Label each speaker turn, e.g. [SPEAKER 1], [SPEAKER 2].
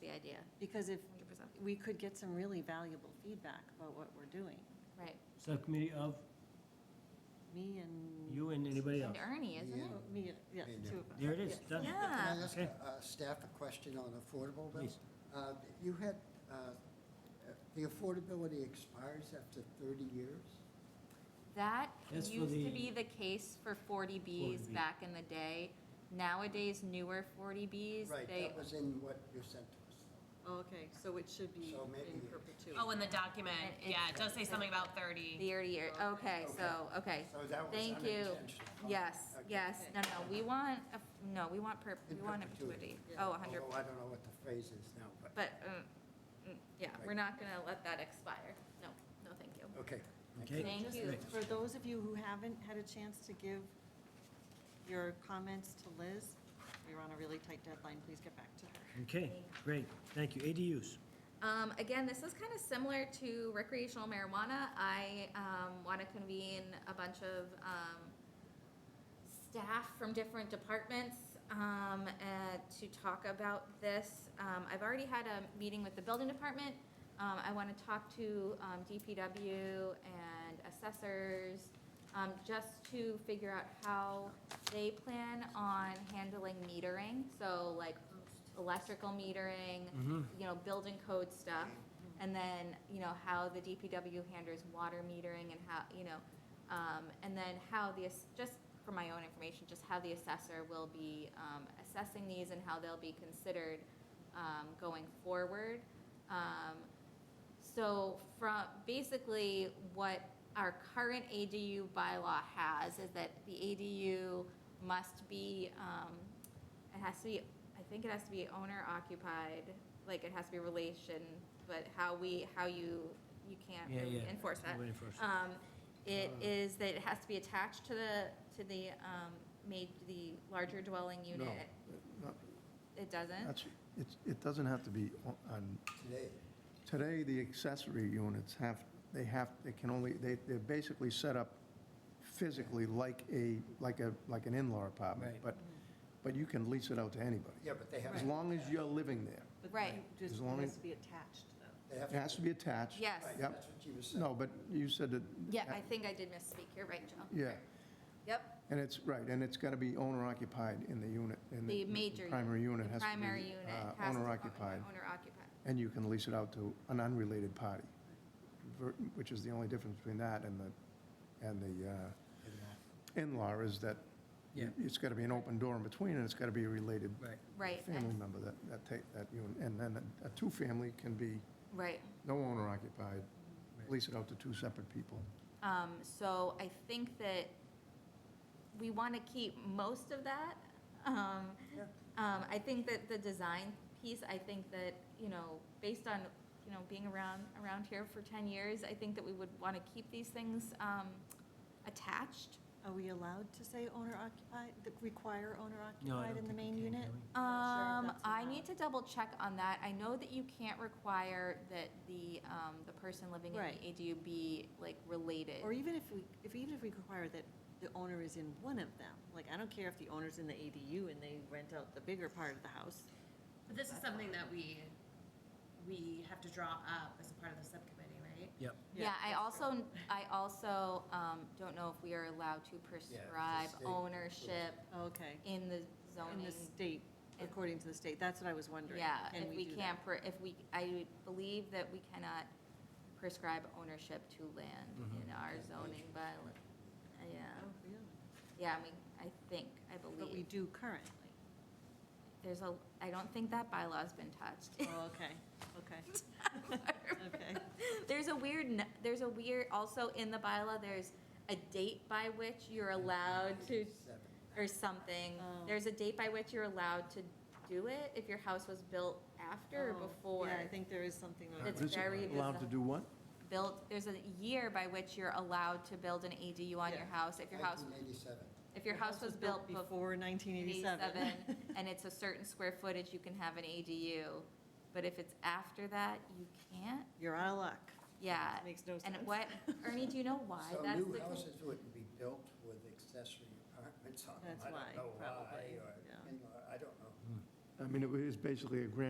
[SPEAKER 1] the idea,
[SPEAKER 2] Because
[SPEAKER 1] 100%.
[SPEAKER 2] if, we could get some really valuable feedback about what we're doing,
[SPEAKER 1] Right.
[SPEAKER 3] Subcommittee of
[SPEAKER 2] me and.
[SPEAKER 3] you and anybody else.
[SPEAKER 1] And Ernie, isn't
[SPEAKER 4] Yeah.
[SPEAKER 1] it?
[SPEAKER 2] Oh, Me, and- yeah,
[SPEAKER 4] Me and
[SPEAKER 2] two
[SPEAKER 4] you.
[SPEAKER 2] of us.
[SPEAKER 3] There it is, done.
[SPEAKER 1] Yeah.
[SPEAKER 4] Can I ask
[SPEAKER 3] Okay.
[SPEAKER 4] uh, staff a question on affordable, Bill?
[SPEAKER 3] Please.
[SPEAKER 4] Uh, You had, uh, uh, the affordability expires after 30 years?
[SPEAKER 1] That
[SPEAKER 3] That's for
[SPEAKER 1] used to
[SPEAKER 3] the-
[SPEAKER 1] be the case for 40Bs
[SPEAKER 3] 40B.
[SPEAKER 1] back in the day. Nowadays, newer 40Bs,
[SPEAKER 4] Right,
[SPEAKER 1] they,
[SPEAKER 4] that was in what you sent to us.
[SPEAKER 2] Oh, okay, so it should be
[SPEAKER 4] So maybe-
[SPEAKER 2] in perpetuity.
[SPEAKER 5] Oh, in the document,
[SPEAKER 1] It-
[SPEAKER 5] yeah, it does say something about thirty.
[SPEAKER 1] the year, okay, so, okay.
[SPEAKER 4] So that was
[SPEAKER 1] Thank you.
[SPEAKER 4] unintentional.
[SPEAKER 1] Yes,
[SPEAKER 4] Okay.
[SPEAKER 1] yes, no, no, we want, a- no, we want, per-
[SPEAKER 4] In
[SPEAKER 1] we want a perpetuity.
[SPEAKER 4] perpetuity.
[SPEAKER 1] Oh, 100,
[SPEAKER 4] Although I don't know what the phrase is now, but,
[SPEAKER 1] but, um, mm, yeah, we're not going to let that expire. No, no, thank you.
[SPEAKER 4] okay.
[SPEAKER 3] Okay.
[SPEAKER 1] Thank
[SPEAKER 2] Just
[SPEAKER 1] you.
[SPEAKER 2] For those of you who haven't had a chance to give your comments to Liz, we are on a really tight deadline, please get back to her.
[SPEAKER 3] Okay, great, thank you. ADUs,
[SPEAKER 1] Um, again, this is kind of similar to recreational marijuana. I, um, want to convene a bunch of, um, staff from different departments, um, uh, to talk about this. Um, I've already had a meeting with the building department. Um, I want to talk to, um, DPW and assessors, um, just to figure out how they plan on handling metering. So like electrical metering, you know, building code stuff, and then, you know, how the DPW handles water metering and how, you know, um, and then how the, ass- just for my own information, just how the assessor will be, um, assessing these and how they'll be considered, um, going forward. Um, so from, basically, what our current ADU bylaw has is that the ADU must be, um, it has to be, I think it has to be owner occupied, like it has to be relation, but how we, how you, you can't
[SPEAKER 3] Yeah,
[SPEAKER 1] really
[SPEAKER 3] yeah.
[SPEAKER 1] enforce that.
[SPEAKER 3] Nobody enforces it.
[SPEAKER 1] Um, it
[SPEAKER 6] Uh.
[SPEAKER 1] is that it has to be attached to the, to the, um, made the larger dwelling unit.
[SPEAKER 6] uh, not-
[SPEAKER 1] It doesn't?
[SPEAKER 6] That's, it, it doesn't have to be on- on,
[SPEAKER 4] Today,
[SPEAKER 6] today, the accessory units have, they have, they can only, they, they're basically set up physically like a, like a, like an in-law apartment.
[SPEAKER 3] Right.
[SPEAKER 6] But, but you can lease it out to anybody,
[SPEAKER 4] yeah, but they have,
[SPEAKER 6] as long as you're living there.
[SPEAKER 2] But
[SPEAKER 1] Right.
[SPEAKER 2] you Just
[SPEAKER 6] As
[SPEAKER 2] it
[SPEAKER 6] long
[SPEAKER 2] has
[SPEAKER 6] as-
[SPEAKER 2] to be attached, though.
[SPEAKER 4] they have.
[SPEAKER 6] It has to be attached.
[SPEAKER 1] Yes.
[SPEAKER 4] Right,
[SPEAKER 6] Yep.
[SPEAKER 4] that's what you were saying.
[SPEAKER 6] No, but you said that.
[SPEAKER 1] Yeah, I think I did misspeak. You're right, Joe.
[SPEAKER 6] Yeah,
[SPEAKER 1] Yep.
[SPEAKER 6] and it's, right, and it's got to be owner occupied in the unit. in
[SPEAKER 1] The major.
[SPEAKER 6] Primary unit
[SPEAKER 1] the
[SPEAKER 6] has to be.
[SPEAKER 1] Primary unit
[SPEAKER 6] uh,
[SPEAKER 1] has to
[SPEAKER 6] Owner
[SPEAKER 1] be
[SPEAKER 6] occupied.
[SPEAKER 1] Owner occupied.
[SPEAKER 6] and you can lease it out to an unrelated party, ver- which is the only difference between that and the, and the uh, in-law is that
[SPEAKER 3] Yeah.
[SPEAKER 6] it's got to be an open door in between, and it's got to be a related
[SPEAKER 3] right.
[SPEAKER 1] Right,
[SPEAKER 6] family member that, that take, that unit. And then a two-family can be
[SPEAKER 1] right.
[SPEAKER 6] no owner occupied, lease it out to two separate people.
[SPEAKER 1] Um, so I think that we want to keep most of that. Um, um, I think that the design piece, I think that, you know, based on, you know, being around, around here for ten years, I think that we would want to keep these things, um, attached.
[SPEAKER 2] Are we allowed to say owner occupied, that require owner
[SPEAKER 3] No, I
[SPEAKER 2] occupied
[SPEAKER 3] don't
[SPEAKER 2] in the
[SPEAKER 3] think
[SPEAKER 2] main
[SPEAKER 3] you can,
[SPEAKER 2] unit?
[SPEAKER 3] can we?
[SPEAKER 2] I'm not sure
[SPEAKER 1] Um,
[SPEAKER 2] if that's
[SPEAKER 1] I
[SPEAKER 2] allowed.
[SPEAKER 1] need to double check on that. I know that you can't require that the, um, the person living in
[SPEAKER 2] Right.
[SPEAKER 1] the ADU be like related.
[SPEAKER 2] Or even if we, if, even if we require that the owner is in one of them, like, I don't care if the owner's in the ADU and they rent out the bigger part of the house.
[SPEAKER 5] But this is something that we, we have to draw up as a part of the subcommittee, right?
[SPEAKER 3] Yep.
[SPEAKER 1] Yeah, I also, I also, um, don't know if we are allowed to prescribe
[SPEAKER 4] state-
[SPEAKER 1] ownership
[SPEAKER 2] Oh, Okay,
[SPEAKER 1] in the
[SPEAKER 2] in
[SPEAKER 1] zoning.
[SPEAKER 2] the state, according to the state, that's what I was wondering.
[SPEAKER 1] Yeah,
[SPEAKER 2] Can
[SPEAKER 1] if we
[SPEAKER 2] do that?
[SPEAKER 1] can't, pre- if we, I believe that we cannot prescribe ownership to land in
[SPEAKER 2] Mm-hmm.
[SPEAKER 1] our zoning, but, uh, yeah,
[SPEAKER 2] Oh, really?
[SPEAKER 1] yeah, I mean, I think, I
[SPEAKER 2] But we
[SPEAKER 1] believe.
[SPEAKER 2] do currently.
[SPEAKER 1] There's a, I don't think that bylaw's been touched.
[SPEAKER 2] Oh, okay, okay. Okay.
[SPEAKER 1] There's a weird, n- there's a weird, also in the bylaw, there's a date by which you're allowed to,
[SPEAKER 4] Seven.
[SPEAKER 1] or something.
[SPEAKER 2] Mm-hmm. Oh.
[SPEAKER 1] There's a date by which you're allowed to do it if your house was built after or
[SPEAKER 2] Oh,
[SPEAKER 1] before.
[SPEAKER 2] Yeah, I think there is something. like
[SPEAKER 1] It's
[SPEAKER 6] What is it,
[SPEAKER 1] very
[SPEAKER 6] Allowed to
[SPEAKER 1] bizarre.
[SPEAKER 6] do what?
[SPEAKER 1] Built, there's a year by which you're allowed to build an ADU on your
[SPEAKER 2] Yeah.
[SPEAKER 1] house if your house,
[SPEAKER 4] 1987.
[SPEAKER 1] if your house was built before
[SPEAKER 2] Before 1987.
[SPEAKER 1] 87 and it's a certain square footage, you can have an ADU. But if it's after that, you can't.
[SPEAKER 2] You're out of luck.
[SPEAKER 1] Yeah.
[SPEAKER 2] Makes no
[SPEAKER 1] Uh, And
[SPEAKER 2] sense.
[SPEAKER 1] what, Ernie, do you know why
[SPEAKER 4] So
[SPEAKER 1] that's the
[SPEAKER 4] new
[SPEAKER 1] case?
[SPEAKER 4] houses wouldn't be built with accessory apartments on them.
[SPEAKER 2] That's
[SPEAKER 4] I
[SPEAKER 2] why,
[SPEAKER 4] don't know why,
[SPEAKER 2] probably,
[SPEAKER 4] or
[SPEAKER 2] yeah.
[SPEAKER 4] in-law, I don't know.
[SPEAKER 6] I mean, it was basically a grand